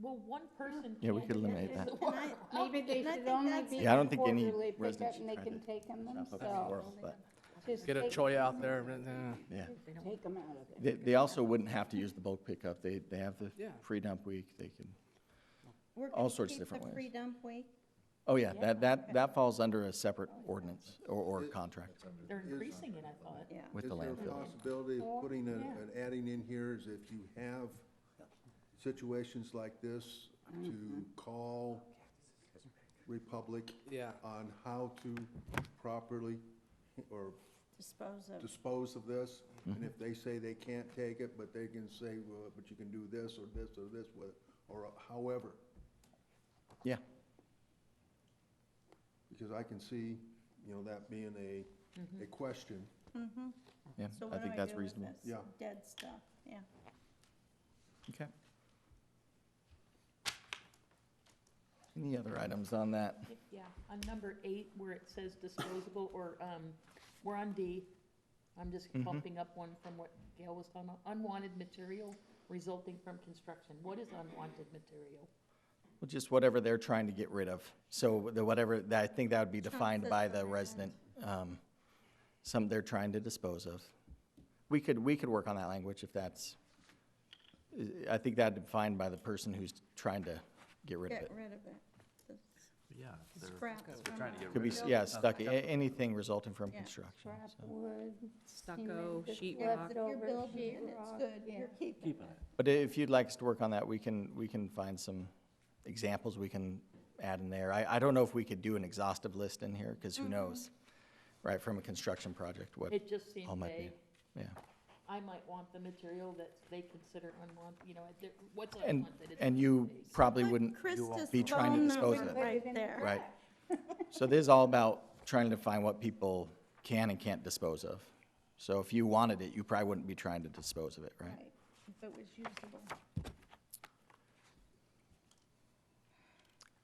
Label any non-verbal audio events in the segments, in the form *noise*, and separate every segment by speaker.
Speaker 1: Well, one person.
Speaker 2: Yeah, we
Speaker 1: can't
Speaker 2: could
Speaker 1: get
Speaker 2: eliminate
Speaker 1: in
Speaker 2: that.
Speaker 1: the
Speaker 3: And
Speaker 4: *laughs*
Speaker 3: I-
Speaker 1: world.
Speaker 3: Maybe they
Speaker 4: And I
Speaker 3: should
Speaker 4: think
Speaker 3: only
Speaker 4: that's-
Speaker 3: be
Speaker 2: Yeah, I don't think any
Speaker 3: quarterly
Speaker 2: resident
Speaker 3: pickup
Speaker 2: should
Speaker 3: and they
Speaker 2: try
Speaker 3: can
Speaker 2: to
Speaker 3: take them
Speaker 2: Stop up
Speaker 3: themselves.
Speaker 2: world, but,
Speaker 3: Just
Speaker 5: Get a
Speaker 3: take-
Speaker 5: choy out there, but, uh,
Speaker 2: yeah.
Speaker 3: Take them out of there.
Speaker 2: They, they also wouldn't have to use the bulk pickup. They, they have the
Speaker 5: Yeah.
Speaker 2: free dump week. They can,
Speaker 4: We're
Speaker 2: All
Speaker 4: gonna
Speaker 2: sorts of
Speaker 4: keep the
Speaker 2: different ways.
Speaker 4: Free dump week.
Speaker 2: oh yeah, that, that, that falls under a separate ordinance or, or contract
Speaker 1: They're increasing it, I thought.
Speaker 4: Yeah.
Speaker 2: with the
Speaker 6: Is there a
Speaker 2: landfill.
Speaker 6: possibility of putting an,
Speaker 1: Yeah.
Speaker 6: an adding in here is if you have situations like this, to call Republic
Speaker 5: Yeah.
Speaker 6: on how to properly or
Speaker 4: Dispose of.
Speaker 6: dispose of this?
Speaker 2: Mm-hmm.
Speaker 6: And if they say they can't take it, but they can say, well, but you can do this or this or this with, it, or uh, however.
Speaker 2: Yeah,
Speaker 6: Because I can see, you know, that being a, a question.
Speaker 2: yeah.
Speaker 4: So
Speaker 2: I
Speaker 4: what do
Speaker 2: think
Speaker 4: I
Speaker 2: that's
Speaker 4: do with
Speaker 2: reasonable.
Speaker 4: this?
Speaker 6: Yeah.
Speaker 4: Dead stuff, yeah.
Speaker 2: Okay. Any other items on that?
Speaker 1: Yeah, on number eight, where it says disposable, or, um, we're on D. I'm just
Speaker 2: Mm-hmm.
Speaker 1: bumping up one from what Gail was talking about, unwanted material resulting from construction. What is unwanted material?
Speaker 2: Well, just whatever they're trying to get rid of. So the whatever, that- I think that would be defined by the resident, um, some they're trying to dispose of. We could, we could work on that language if that's, I think that'd be defined by the person who's trying to get rid of
Speaker 4: Get
Speaker 2: it.
Speaker 4: rid of it. The
Speaker 7: Yeah. they're-
Speaker 4: Scraps
Speaker 7: They're
Speaker 4: from
Speaker 7: trying to
Speaker 4: our
Speaker 7: get
Speaker 2: Could be,
Speaker 7: rid of.
Speaker 2: yeah, stuck, a- anything resulting from
Speaker 4: Yeah,
Speaker 2: construction.
Speaker 3: Scrap
Speaker 2: so.
Speaker 3: wood.
Speaker 8: stucco,
Speaker 3: cement,
Speaker 8: sheet
Speaker 3: leftover
Speaker 8: rock.
Speaker 4: If you're building
Speaker 3: sheet
Speaker 4: and it's
Speaker 3: rock,
Speaker 4: good,
Speaker 3: yeah.
Speaker 4: you're keeping
Speaker 7: Keeping
Speaker 4: it.
Speaker 7: it.
Speaker 2: But if you'd like us to work on that, we can, we can find some examples we can add in there. I, I don't know if we could do an exhaustive list in here, because who knows, right, from a construction project, what
Speaker 1: It just seems
Speaker 2: all might be.
Speaker 1: vague.
Speaker 2: Yeah,
Speaker 1: I might want the material that they consider unwanted, you know, there- what's
Speaker 2: and,
Speaker 1: unwanted? It's
Speaker 2: and you
Speaker 1: unwanted.
Speaker 2: probably
Speaker 4: Like
Speaker 2: wouldn't
Speaker 4: Krista's
Speaker 2: be trying to
Speaker 4: phone
Speaker 2: dispose of
Speaker 4: number
Speaker 2: it,
Speaker 4: Right there.
Speaker 2: right? So this is all about trying to find what people can and can't dispose of. So if you wanted it, you probably wouldn't be trying to dispose of it, right?
Speaker 4: Right, If it was usable.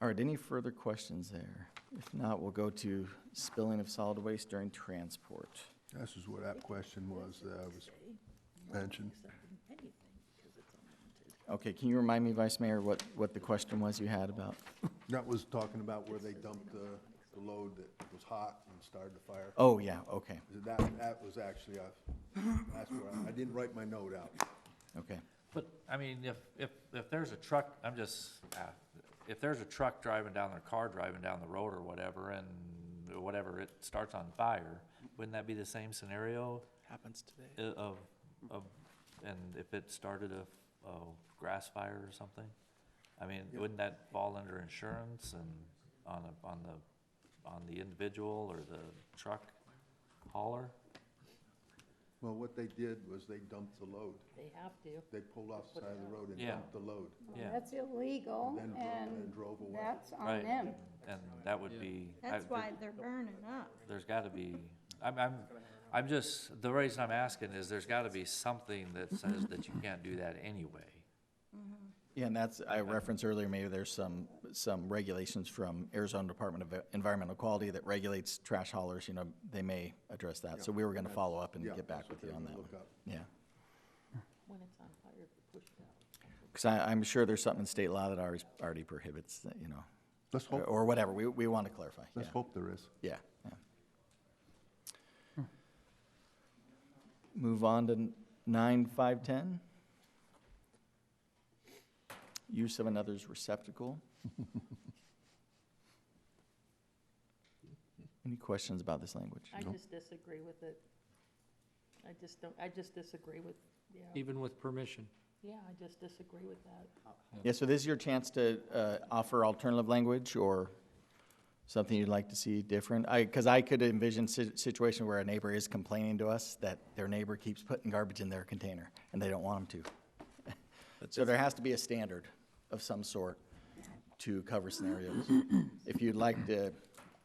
Speaker 2: All right, any further questions there? If not, we'll go to spilling of solid waste during transport.
Speaker 6: This is where that question was, that I was mentioned.
Speaker 2: Okay, can you remind me, Vice Mayor, what, what the question was you had about?
Speaker 6: That was talking about where they dumped the, the load that was hot and started the fire.
Speaker 2: Oh, yeah, okay,
Speaker 6: That, that was actually, a- that's where, I I didn't write my note out.
Speaker 2: okay.
Speaker 7: But, I mean, if, if, if there's a truck, I'm just, ah, if there's a truck driving down, their car driving down the road or whatever, and whatever, it starts on fire, wouldn't that be the same scenario
Speaker 5: happens today.
Speaker 7: i- of, of, and if it started a, a grass fire or something? I mean, wouldn't that fall under insurance and on a, on the, on the individual or the truck hauler?
Speaker 6: Well, what they did was they dumped the load.
Speaker 1: They have to.
Speaker 6: They pulled off the side of the road and
Speaker 7: Yeah.
Speaker 6: dumped the load.
Speaker 7: Yeah.
Speaker 3: That's illegal
Speaker 6: Then drove- then
Speaker 3: and
Speaker 6: drove away.
Speaker 3: that's on
Speaker 7: Right.
Speaker 3: them.
Speaker 7: And that would be. I-
Speaker 4: That's why they're burning up.
Speaker 7: there's gotta be, I'm, I'm, I'm just, the reason I'm asking is there's gotta be something that says that you can't do that anyway.
Speaker 2: Yeah, and that's, I referenced earlier, maybe there's some, some regulations from Arizona Department of Environmental Quality that regulates trash haulers, you know, they may address that. So we were gonna follow up and
Speaker 6: Yeah,
Speaker 2: get back
Speaker 6: that's
Speaker 2: with
Speaker 6: what
Speaker 2: you
Speaker 6: they're
Speaker 2: on
Speaker 6: gonna
Speaker 2: that one.
Speaker 6: look up.
Speaker 2: Yeah,
Speaker 1: When it's on fire, if you push it out.
Speaker 2: because I, I'm sure there's something in state law that already, already prohibits, that, you know,
Speaker 6: Let's
Speaker 2: or-
Speaker 6: hope,
Speaker 2: or whatever, we, we want to clarify, Uh, oh, yeah.
Speaker 6: let's hope there is.
Speaker 2: Yeah. yeah. Move on to nine, five, ten. Use of another's receptacle. Any questions about this language?
Speaker 1: I just disagree with it. I just don't, I just disagree with, yeah,
Speaker 9: even with permission.
Speaker 1: yeah, I just disagree with that.
Speaker 2: Yeah, so this is your chance to uh, offer alternative language or something you'd like to see different? I, because I could envision si- situation where a neighbor is complaining to us that their neighbor keeps putting garbage in their container and they don't want them to. So there has to be a standard of some sort to cover scenarios. If you'd like to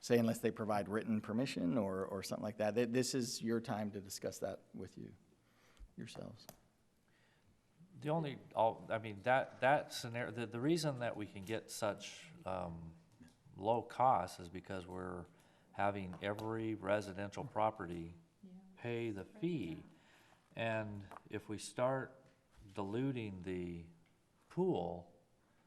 Speaker 2: say unless they provide written permission or, or something like that, th- this is your time to discuss that with you, yourselves.
Speaker 7: The only, all, I mean, that, that scenario, the, the reason that we can get such, um, low costs is because we're having every residential property pay the fee. And if we start diluting the pool,